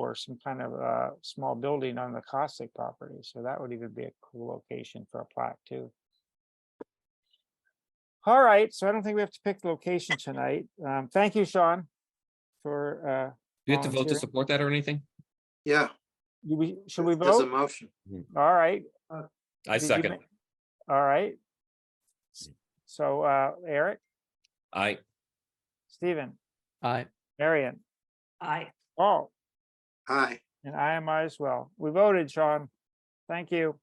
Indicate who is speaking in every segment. Speaker 1: or some kind of uh small building on the Cossack property. So that would even be a cool location for a plaque too. All right, so I don't think we have to pick the location tonight. Um, thank you, Sean. For uh,
Speaker 2: Do you have to vote to
Speaker 1: Volunteering.
Speaker 2: support that or anything?
Speaker 3: Yeah.
Speaker 1: do we, should we
Speaker 3: There's a
Speaker 1: vote?
Speaker 3: motion.
Speaker 1: All right.
Speaker 2: um, I
Speaker 1: did you
Speaker 2: second.
Speaker 1: ma- All right. S- So uh, Eric,
Speaker 2: I,
Speaker 1: Stephen,
Speaker 4: Aye.
Speaker 1: Marion,
Speaker 5: Aye.
Speaker 1: Paul,
Speaker 3: Aye.
Speaker 1: and I am I as well. We voted, Sean. Thank you.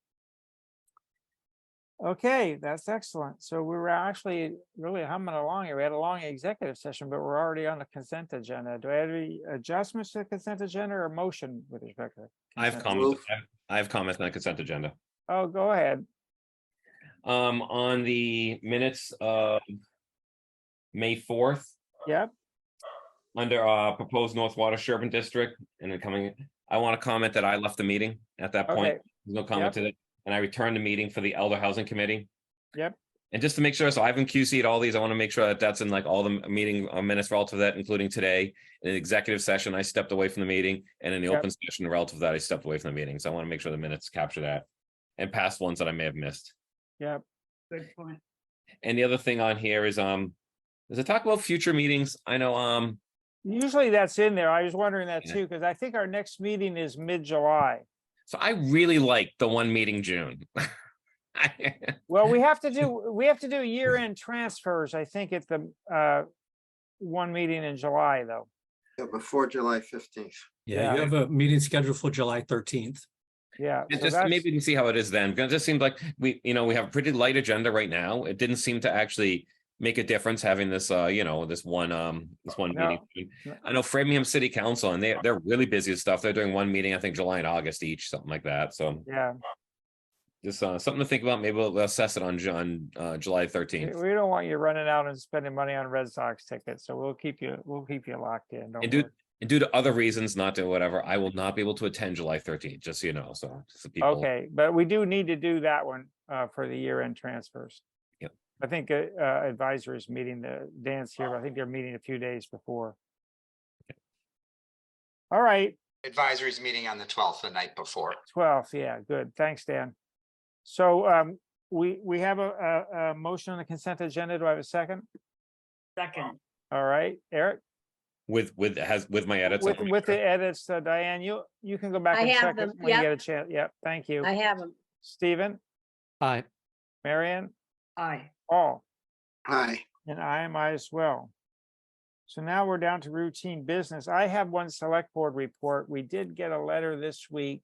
Speaker 1: Okay, that's excellent. So we were actually really humming along here. We had a long executive session, but we're already on the consent agenda. Do I have any adjustments to the consent agenda or motion with respect to?
Speaker 2: I have
Speaker 1: consent?
Speaker 2: comments,
Speaker 3: Move.
Speaker 2: I have- I have comments on the consent agenda.
Speaker 1: Oh, go ahead.
Speaker 2: Um, on the minutes of May fourth.
Speaker 1: Yep.
Speaker 2: Under uh proposed North Water Sherburne District and then coming, I want to comment that I left the meeting at that point.
Speaker 1: Okay.
Speaker 2: There's no comment to it. And I returned the meeting for the Elder Housing Committee.
Speaker 1: Yep.
Speaker 2: And just to make sure, so I've been QC'd all these. I want to make sure that that's in like all the meeting uh, minutes relative to that, including today. In the executive session, I stepped away from the meeting and in the
Speaker 1: Yep.
Speaker 2: open session relative to that, I stepped away from the meeting. So I want to make sure the minutes capture that. And past ones that I may have missed.
Speaker 1: Yep.
Speaker 5: Good point.
Speaker 2: And the other thing on here is, um, does it talk about future meetings? I know, um,
Speaker 1: Usually that's in there. I was wondering that
Speaker 2: Yeah.
Speaker 1: too, because I think our next meeting is mid-July.
Speaker 2: so I really like the one meeting June. I-
Speaker 1: Well, we have to do, we have to do year-end transfers, I think, at the uh one meeting in July, though.
Speaker 3: Yeah, before July fifteenth.
Speaker 4: Yeah, you
Speaker 1: Yeah.
Speaker 4: have a meeting scheduled for July thirteenth.
Speaker 1: Yeah.
Speaker 2: It
Speaker 1: so
Speaker 2: just
Speaker 1: that's-
Speaker 2: maybe we can see how it is then, because it just seemed like we, you know, we have a pretty light agenda right now. It didn't seem to actually make a difference having this, uh, you know, this one, um, this one
Speaker 1: No.
Speaker 2: meeting.
Speaker 1: No.
Speaker 2: I know Framingham City Council and they, they're really busy with stuff. They're doing one meeting, I think July and August each, something like that. So
Speaker 1: Yeah,
Speaker 2: just, uh, something to think about. Maybe we'll assess it on, Ju- on, uh, July
Speaker 1: we
Speaker 2: thirteenth.
Speaker 1: we don't want you running out and spending money on Red Sox tickets, so we'll keep you, we'll keep you locked in. don't
Speaker 2: And do-
Speaker 1: worry.
Speaker 2: And due to other reasons, not to whatever, I will not be able to attend July thirteenth, just so you know, so. just so people-
Speaker 1: Okay, but we do need to do that one uh for the year-end transfers.
Speaker 2: Yep.
Speaker 1: I think uh uh, advisory is meeting the dance here, but I think they're meeting a few days before. All right,
Speaker 6: Advisory's meeting on the twelfth, the night before.
Speaker 1: Twelve, yeah, good. Thanks, Dan. So um, we, we have a, a, a motion on the consent agenda. Do I have a second?
Speaker 5: Second,
Speaker 1: All right, Eric,
Speaker 2: With, with, has, with my edits.
Speaker 1: with,
Speaker 2: I'll make
Speaker 1: with
Speaker 2: sure.
Speaker 1: the edits, uh, Diane, you, you can go back
Speaker 7: I
Speaker 1: and
Speaker 7: have
Speaker 1: check it
Speaker 7: them,
Speaker 1: when you
Speaker 7: yep.
Speaker 1: get a chance. Yep, thank you.
Speaker 7: I have them.
Speaker 1: Stephen,
Speaker 4: Aye.
Speaker 1: Marion,
Speaker 5: aye.
Speaker 1: Paul,
Speaker 3: Aye.
Speaker 1: and I am I as well. So now we're down to routine business. I have one select board report. We did get a letter this week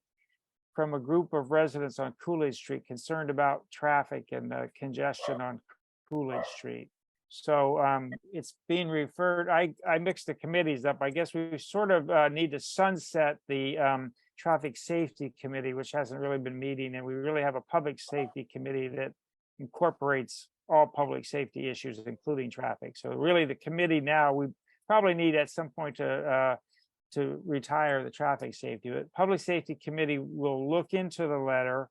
Speaker 1: from a group of residents on Coolidge Street concerned about traffic and the congestion on Coolidge Street. So um, it's being referred, I, I mixed the committees up. I guess we sort of uh, need to sunset the um, Traffic Safety Committee, which hasn't really been meeting, and we really have a Public Safety Committee that incorporates all public safety issues, including traffic. So really, the committee now, we probably need at some point to, uh, to retire the traffic safety, but Public Safety Committee will look into the letter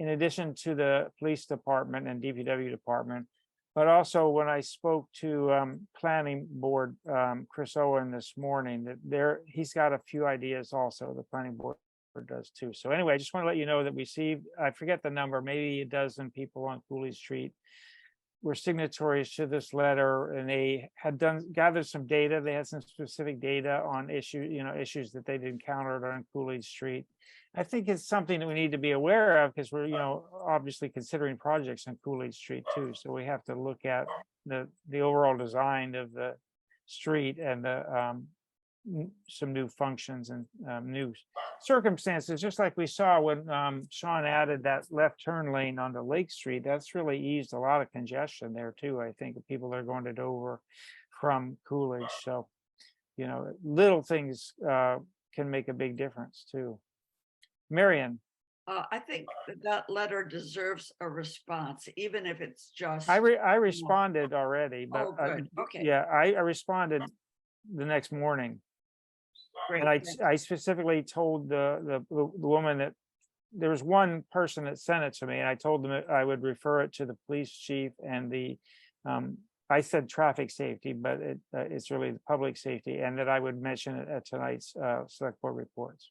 Speaker 1: in addition to the police department and DPW department. But also, when I spoke to, um, Planning Board, um, Chris Owen this morning, that there, he's got a few ideas also, the Planning Board Hartford does too. So anyway, I just want to let you know that we received, I forget the number, maybe a dozen people on Coolidge Street were signatories to this letter and they had done, gathered some data. They had some specific data on issue, you know, issues that they'd encountered on Coolidge Street. I think it's something that we need to be aware of because we're, you know, obviously considering projects on Coolidge Street too. So we have to look at the, the overall design of the street and the, um, n- some new functions and, um, new circumstances, just like we saw when um Sean added that left turn lane onto Lake Street, that's really eased a lot of congestion there too, I think, of people that are going to Dover from Coolidge, so you know, little things uh can make a big difference too. Marion,
Speaker 5: Uh, I think that that letter deserves a response, even if it's just.
Speaker 1: I re- I responded already, but
Speaker 5: Oh,
Speaker 1: uh,
Speaker 5: good, okay.
Speaker 1: yeah, I I responded the next morning.
Speaker 5: great,
Speaker 1: And I,
Speaker 5: thank-
Speaker 1: I specifically told the, the, the the woman that there was one person that sent it to me and I told them that I would refer it to the police chief and the, um, I said traffic safety, but it, uh, it's really the public safety, and that I would mention it at tonight's, uh, select board reports.